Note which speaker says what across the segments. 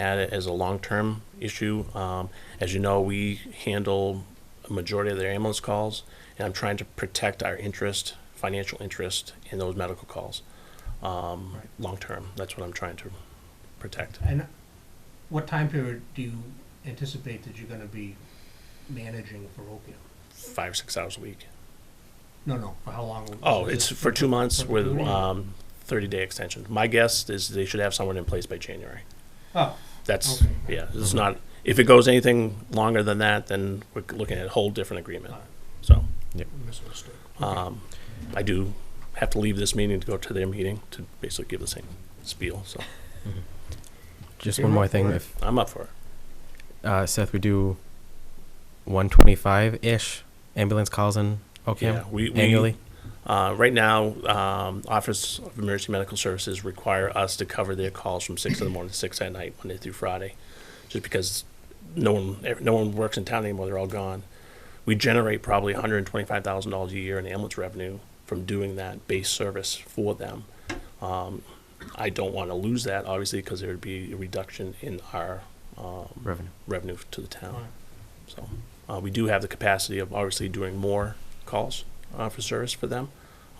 Speaker 1: at it as a long-term issue. Um, As you know, we handle a majority of their ambulance calls, and I'm trying to protect our interest, financial interest in those medical calls. um,
Speaker 2: Right.
Speaker 1: Long-term, that's what I'm trying to protect.
Speaker 2: And what time period do you anticipate that you're gonna be managing for Oakdale?
Speaker 1: Five, six hours a week.
Speaker 2: No, no, for how long?
Speaker 1: Oh,
Speaker 2: Is
Speaker 1: it's
Speaker 2: this-
Speaker 1: for two months
Speaker 2: for
Speaker 1: with
Speaker 2: two months.
Speaker 1: um, 30-day extensions. My guess is they should have someone in place by January.
Speaker 2: Oh,
Speaker 1: That's,
Speaker 2: Okay.
Speaker 1: yeah, it's not, if it goes anything longer than that, then we're looking at a whole different agreement.
Speaker 2: Alright.
Speaker 1: So,
Speaker 2: misunderstood.
Speaker 1: um, I do have to leave this meeting to go to their meeting to basically give the same spiel, so
Speaker 3: Just
Speaker 2: Okay,
Speaker 3: one
Speaker 2: Ro-
Speaker 3: more thing.
Speaker 2: Ro-
Speaker 3: If
Speaker 1: I'm up for it.
Speaker 3: uh, Seth, we do 125 ish ambulance calls in
Speaker 1: Yeah,
Speaker 3: Ocam
Speaker 1: we, we,
Speaker 3: annually.
Speaker 1: uh, right now, um, Office of Emergency Medical Services require us to cover their calls from six in the morning to six at night, Monday through Friday, just because no one, ev- no one works in town anymore, they're all gone. We generate probably hundred and twenty-five thousand dollars a year in ambulance revenue from doing that base service for them. Um, I don't want to lose that, obviously, because there would be a reduction in our, um,
Speaker 3: Revenue.
Speaker 1: revenue to the town.
Speaker 2: Right.
Speaker 1: So, uh, we do have the capacity of obviously doing more calls, uh, for service for them.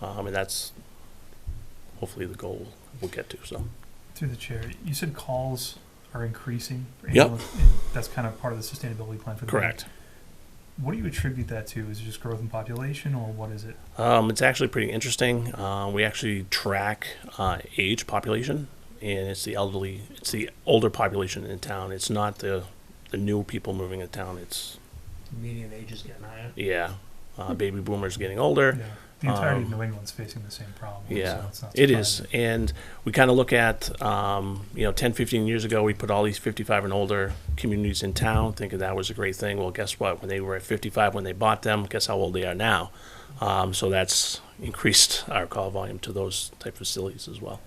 Speaker 1: Um, and that's hopefully the goal we'll get to, so.
Speaker 4: Through the chair, you said calls are increasing. for
Speaker 1: Yep.
Speaker 4: ambulance, And that's kind of part of the sustainability plan for the. bank.
Speaker 1: Correct.
Speaker 4: What do you attribute that to? Is it just growth in population or what is it?
Speaker 1: Um, it's actually pretty interesting. Uh, we actually track, uh, age population and it's the elderly, it's the older population in town. It's not the, the new people moving in town. It's,
Speaker 2: The median age is getting higher.
Speaker 1: yeah, uh, baby boomers getting older.
Speaker 4: The entirety of
Speaker 1: Um,
Speaker 4: New England's facing the same problem.
Speaker 1: Yeah,
Speaker 4: so it's not
Speaker 1: it is.
Speaker 4: surprising.
Speaker 1: And we kind of look at, um, you know, 10, 15 years ago, we put all these 55 and older communities in town, thinking that was a great thing. Well, guess what? When they were at 55, when they bought them, guess how old they are now? Um, so that's increased our call volume to those type facilities as well.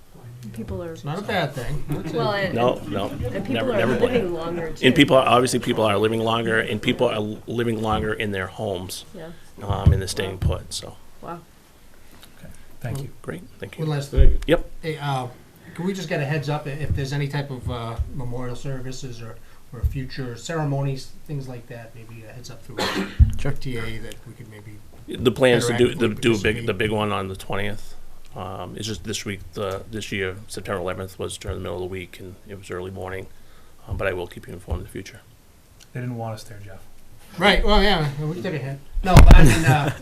Speaker 5: People are
Speaker 2: It's not a bad thing.
Speaker 5: well, and,
Speaker 1: No, no,
Speaker 5: and people
Speaker 1: never,
Speaker 5: are
Speaker 1: never blame.
Speaker 5: living longer too.
Speaker 1: And people, are obviously, people are living longer, and people are living longer in their homes,
Speaker 5: yeah.
Speaker 1: um, and they're staying put, so.
Speaker 5: Wow.
Speaker 4: Thank you.
Speaker 1: Great, thank
Speaker 2: One
Speaker 1: you.
Speaker 2: last thing.
Speaker 1: Yep.
Speaker 2: Hey, uh, can we just get a heads up i- if there's any type of, uh, memorial services or, or future ceremonies, things like that, maybe a heads up through FTA that we could maybe,
Speaker 1: The plans to do,
Speaker 2: Interact
Speaker 1: to
Speaker 2: with
Speaker 1: do a
Speaker 2: this
Speaker 1: big,
Speaker 2: week.
Speaker 1: the big one on the twentieth. Um, it's just this week, the, this year, September eleventh was during the middle of the week and it was early morning. Um, but I will keep you informed in the future.
Speaker 4: They didn't want us there, Jeff.
Speaker 2: right, well, yeah, we did a hint. No, but I mean, uh,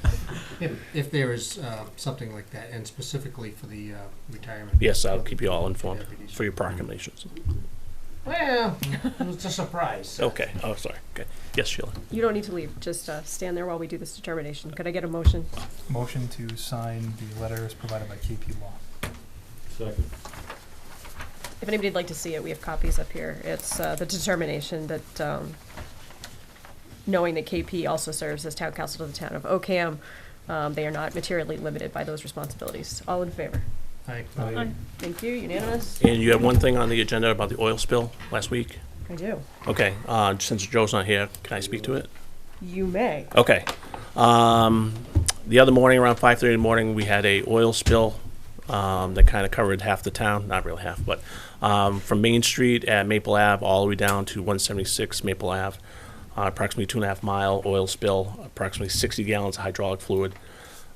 Speaker 2: if, if there is, uh, something like that, and specifically for the, uh, retirement.
Speaker 1: Yes, I'll keep you all informed
Speaker 2: Deputies.
Speaker 1: for your proclamations.
Speaker 2: Well, it was a surprise.
Speaker 1: Okay, oh, sorry, okay. Yes, Sheila.
Speaker 5: You don't need to leave. Just uh, stand there while we do this determination. Could I get a motion?
Speaker 4: Motion to sign the letters provided by KP Law.
Speaker 5: If anybody'd like to see it, we have copies up here. It's uh, the determination that um, knowing that KP also serves as town council to the town of Ocam, um, they are not materially limited by those responsibilities. All in favor?
Speaker 2: Aye.
Speaker 5: Thank you. Unanimous.
Speaker 1: And you had one thing on the agenda about the oil spill last week?
Speaker 5: I do.
Speaker 1: Okay, uh, since Joe's not here, can I speak to it?
Speaker 5: You may.
Speaker 1: Okay. Um, the other morning, around five thirty in the morning, we had a oil spill um, that kind of covered half the town, not really half, but um, from Main Street at Maple Ave all the way down to one seventy six Maple Ave, uh, approximately two and a half mile oil spill, approximately sixty gallons of hydraulic fluid.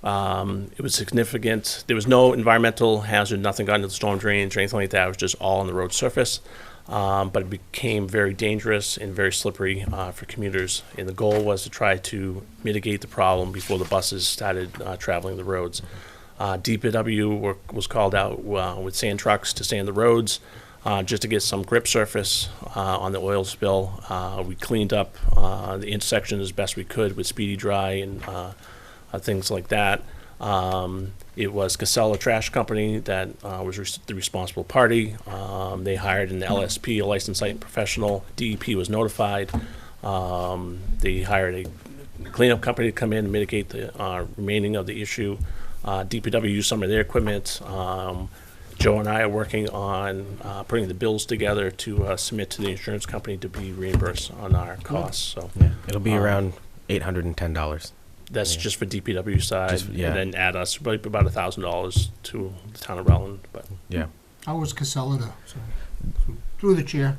Speaker 1: Um, it was significant. There was no environmental hazard, nothing got into the storm drains or anything like that. It was just all on the road surface. Um, but it became very dangerous and very slippery uh, for commuters. And the goal was to try to mitigate the problem before the buses started uh, traveling the roads. Uh, DPW were, was called out uh, with sand trucks to sand the roads uh, just to get some grip surface uh, on the oil spill. Uh, we cleaned up uh, the intersection as best we could with Speedy Dry and uh, uh, things like that. Um, it was Casella Trash Company that uh, was res- the responsible party. Um, they hired an LSP, a licensed site professional. DEP was notified. Um, they hired a cleanup company to come in and mitigate the uh, remaining of the issue. Uh, DPW used some of their equipment. Um, Joe and I are working on uh, putting the bills together to uh, submit to the insurance company to be reimbursed on our costs. So
Speaker 3: Yeah. It'll be
Speaker 1: Um,
Speaker 3: around $810.
Speaker 1: that's
Speaker 3: Yeah.
Speaker 1: just for DPW side,
Speaker 3: Just- yeah.
Speaker 1: and then add us probably about a thousand dollars to the town of Rutland. But
Speaker 3: Yeah.
Speaker 2: How was Casella? to- Through the chair,